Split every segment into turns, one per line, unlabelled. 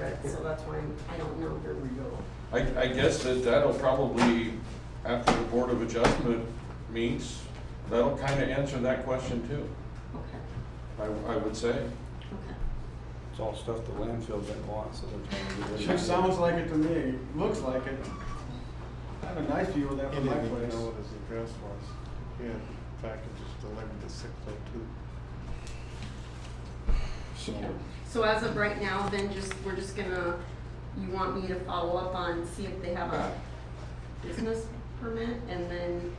read, so that's why I'm, I don't know.
Here we go.
I, I guess that that'll probably, after the Board of Adjustment meets, that'll kind of answer that question too,
Okay,
I, I would say.
okay.
It's all stuff the landfill didn't want, so they're trying to get rid of it.
Sure sounds like it to me, looks like it. I have a nice view of that
He
from my
didn't even
place.
know what his address was. He had, in fact, it just delivered to six oh two. So,
So as of right now, then just, we're just gonna, you want me to follow up on, see if they have a business permit and then,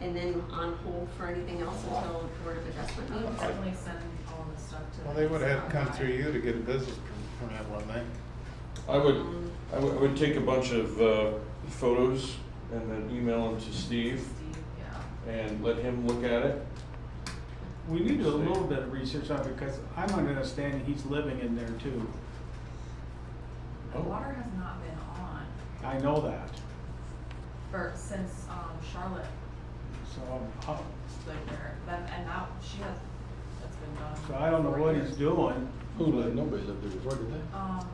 and then on hold for anything else until Board of Adjustment
I would
meets?
certainly send all the stuff to.
well, they would have had to come
Scott.
through you to get a business per- permit, wouldn't they?
I would,
Um,
I would, I would take a bunch of, uh, photos and then email them to Steve
Steve, yeah.
and let him look at it.
We need to do a little bit of research on it, because I'm under the understanding he's living in there too.
The
Oh.
water has not been on
I know that,
for, since, um, Charlotte,
so uh, I'm, I'm-
like, there, that, and now she has, that's been done.
so I don't know
for
what
years.
he's doing.
Who lived, nobody lived there before, did they?
Um,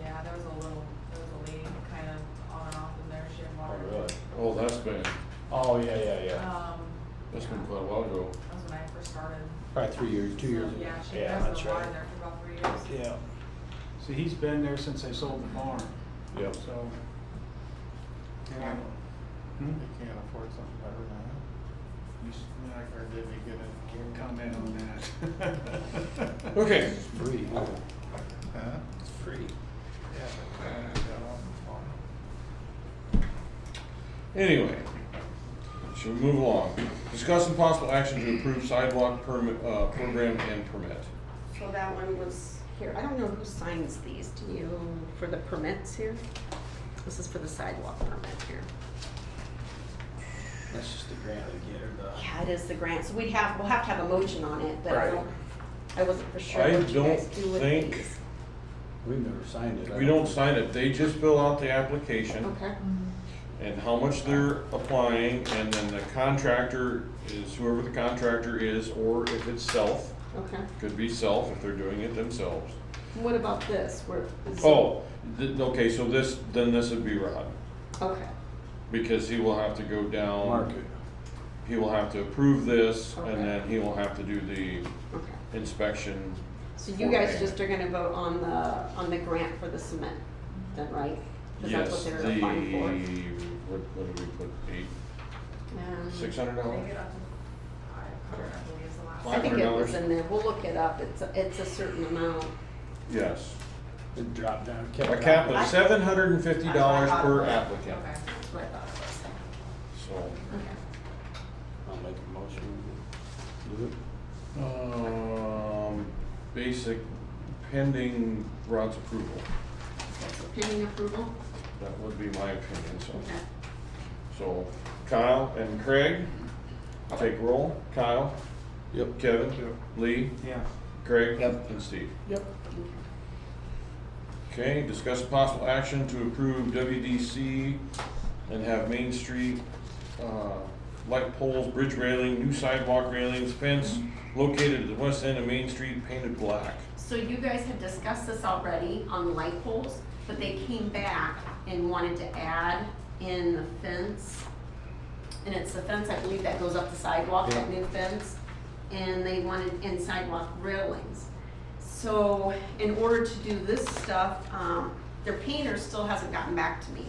yeah, there was a little, there was a lady kind of on and off in there, she had water.
Oh, that's been,
Oh, yeah, yeah,
Um,
that's been
yeah,
quite a while ago.
that was when I first started.
Probably three years, two
So,
years ago.
Yeah, she,
Yeah,
there's
that's
been water
right.
there for about three years.
Yeah.
So he's been there since they sold the farm,
Yep.
so. And I- hmm?
They can't afford something better now,
You s- I
or did he get
can't
it?
Comment on that.
Okay,
It's free.
Huh?
It's free.
Yeah, but then he got on the phone.
anyway, should we move along? Discuss some possible action to approve sidewalk permit, uh, program and permit.
So that one was here, I don't know who signs these, do you, for the permits here? This is for the sidewalk permit here.
That's just the grant they get, or the,
Yeah, it is the grant, so we'd have, we'll have to have a motion on it, but I
Right.
don't, I wasn't for sure
I
what you guys
don't
do with
think-
these.
we've never signed it. I
We don't sign it, they just fill out the application.
Okay,
and how much they're applying, and then the contractor is whoever the contractor is, or if it's self,
okay.
could be self if they're doing it themselves.
What about this, where? is it-
Oh, th- okay, so this, then this would be Rod,
Okay,
because he will have to go down.
Mark it.
He will have to approve this,
Okay.
and then he will have to do the
okay.
inspection.
So you guys just are gonna vote on the, on the grant for the cement, then, right? 'Cause that's
Yes,
what
the,
they're applying for.
what, what did we put, eight,
Um,
six hundred
They
dollars?
get up to five hundred, I believe is the last.
I think it was
$500.
in there, we'll look it up, it's, a- it's a certain amount.
Yes,
It dropped down. kept
a
dropping.
cap of seven hundred and fifty dollars per applicant,
Okay.
That's what I thought it was.
so.
Okay.
I'll make a motion. Do it.
Um, basic pending Rod's approval.
That's pending approval?
That would be my opinion, so.
Okay.
So Kyle and Craig, take roll. Kyle,
Yep.
Kevin, Lee,
Yeah.
Craig,
Yep.
and Steve.
Yep.
Okay, discuss possible action to approve WDC and have Main Street, uh, light poles, bridge railing, new sidewalk railings, fence located at the west end of Main Street painted black.
So you guys had discussed this already on the light poles, but they came back and wanted to add in the fence. And it's the fence, I believe, that goes up the sidewalk, that new fence, and they wanted in sidewalk railings. So in order to do this stuff, um, their painter still hasn't gotten back to me.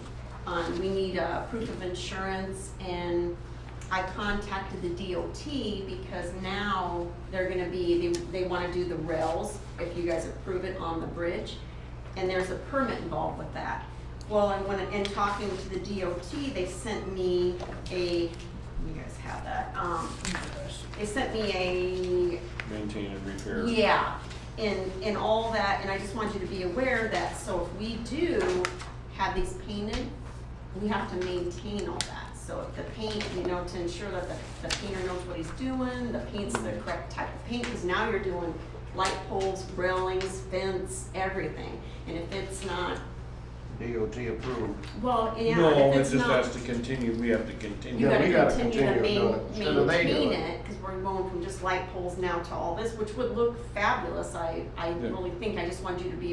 Um, we need a proof of insurance and I contacted the DOT because now they're gonna be, they, they wanna do the rails, if you guys approve it on the bridge. And there's a permit involved with that. Well, and when, in talking to the DOT, they sent me a, you guys have that, um, they sent me a
Maintain and repair.
yeah, and, and all that, and I just want you to be aware that, so if we do have these painted, we have to maintain all that. So if the paint, you know, to ensure that the, the painter knows what he's doing, the paint's the correct type of paint, because now you're doing light poles, railings, fence, everything. And if it's not,
DOT approved.
well, yeah,
No,
if
it
it's
just
not,
has to continue, we have to continue.
you
Yeah, we
gotta
gotta
continue to
continue to do
main,
it. Instead of they do
maintain
it.
it, because we're going from just light poles now to all this, which would look fabulous, I, I
Yeah.
really think, I just want you to be